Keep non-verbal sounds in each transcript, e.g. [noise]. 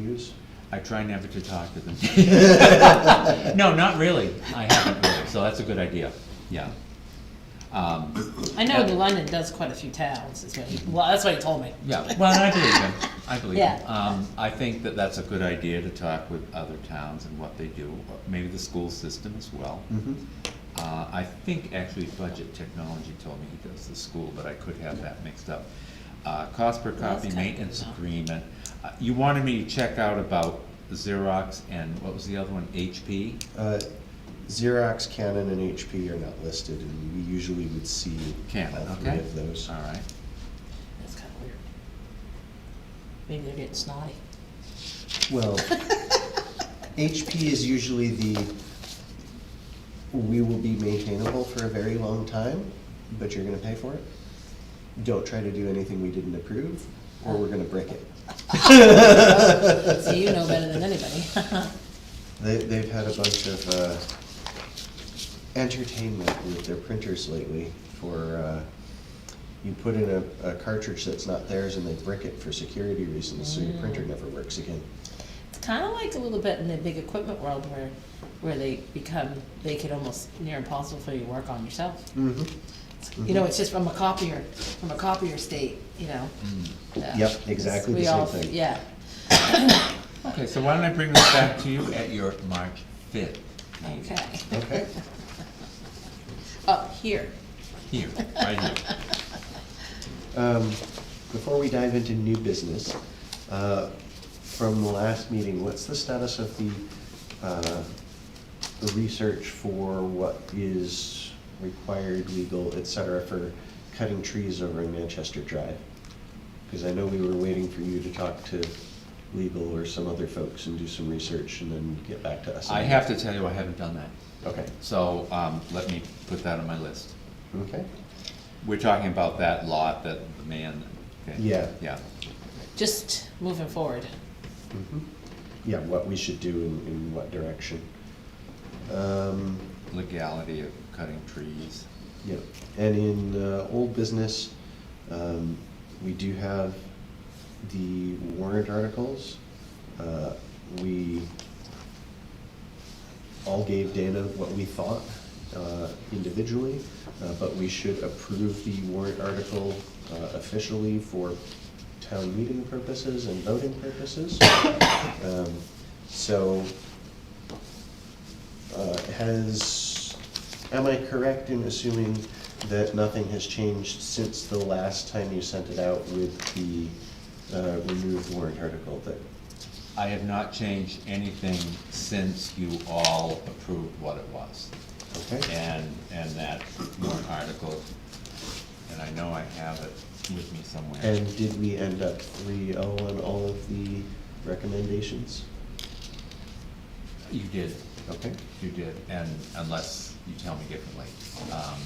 years. I try never to talk to them. [laughs] No, not really. I haven't really, so that's a good idea, yeah. Um, I know London does quite a few towns, is what he, well, that's what he told me. yeah, well, I believe him, I believe him. Yeah. Um, I think that that's a good idea to talk with other towns and what they do, maybe the school system as well. Uh, I think actually Budget Technology told me he does the school, but I could have that mixed up. Uh, cost per that's copy kinda maintenance good, though. agreement. Uh, You wanted me to check out about Xerox and what was the other one, HP? Uh, Xerox, Canon, and HP are not listed, and we usually would see Canon, all three okay. of those. All right. That's kinda weird. Maybe they're [laughs] getting snotty. Well, [laughs] HP is usually the, we will be maintainable for a very long time, but you're gonna pay for it. Don't try to do anything we didn't approve, or we're gonna break [laughs] it. So you know better than anybody. [laughs] They, they've had a bunch of, uh, entertainment with their printers lately for, uh, you put in a, a cartridge that's not theirs and they brick it for security reasons, so your printer never works again. It's kinda like a little bit in the big equipment world where, where they become, they can almost near impossible for you to work on yourself. Mm-hmm. You know, it's just from a copier, from a copier state, you know? Yeah. Mm. Yep, exactly We the same all- thing. Yeah, Okay, so why don't I bring this back to you at your March fifth meeting, okay, Okay, up here. here, [laughs] right here. um, before we dive into new business, uh, from the last meeting, what's the status of the, uh, the research for what is required, legal, et cetera, for cutting trees over in Manchester Drive? Because I know we were waiting for you to talk to legal or some other folks and do some research and then get back to us. I have to tell you, I haven't done that, Okay, so, um, let me put that on my list. okay, We're talking about that lot that the man, okay? Yeah. Yeah, Just moving forward. mhm. Yeah, what we should do and in what direction. Um, legality of cutting trees. Yep, and in uh, old business, um, we do have the warrant articles. Uh, We all gave Dana what we thought uh, individually, uh, but we should approve the warrant article uh, officially for town meeting purposes and voting purposes. [coughs] Um, So uh, Has, am I correct in assuming that nothing has changed since the last time you sent it out with the uh, removed warrant article that, I have not changed anything since you all approved what it was. okay? and, and that warrant article, and I know I have it with me somewhere. And did we end up three oh on all of the recommendations? You did, Okay, you did, and unless you tell me differently. Um,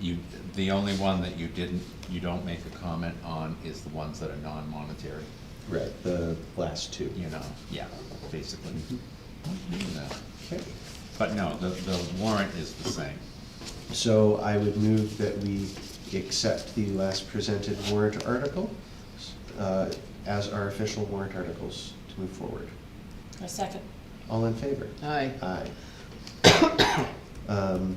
You, the only one that you didn't, you don't make a comment on is the ones that are non-monetary, right, the last two. you know, yeah, basically. No. Okay, But no, the, the warrant is the same. so I would move that we accept the last presented warrant article uh, as our official warrant articles to move forward. A second. All in favor? Aye. Aye. Um,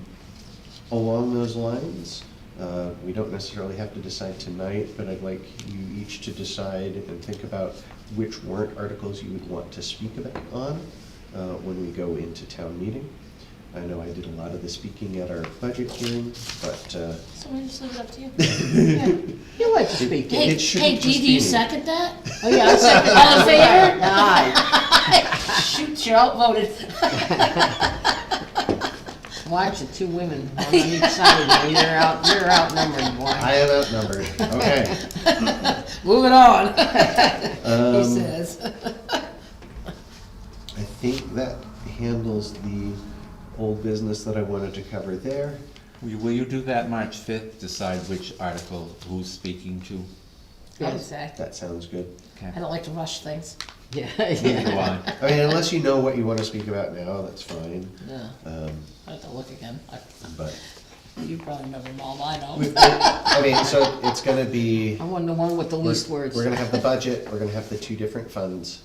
Along those lines, uh, we don't necessarily have to decide tonight, but I'd like you each to decide and think about which warrant articles you would want to speak about on uh, when we go into town meeting. I know I did a lot of the speaking at our budget hearing, but uh, [laughs] So we just leave it up to you. You like to speak. it Hey, it shouldn't hey, just be... Dee, do you second that? [laughs] Oh, yeah, I second. All in [laughs] favor? Aye. [laughs] Shoot, you're outvoted. [laughs] Watch the two women, one on each side, of you. you're out, you're outnumbered, I boy. am outnumbered, okay. Moving on, Um, he Um, says. I think that handles the old business that I wanted to cover there. Will you- Will you do that March fifth, decide which article, who's speaking to? I would say. That sounds good. Okay. I don't like to rush things. [laughs] Yeah, Neither [laughs] do yeah. I. I mean, unless you know what you want to speak about now, that's fine. No, Um, I have to look again. I- but You probably know them all, I know. we've, I mean, so it's going to be I want the one with the least words. We're going to have the budget. We're going to have the two different funds.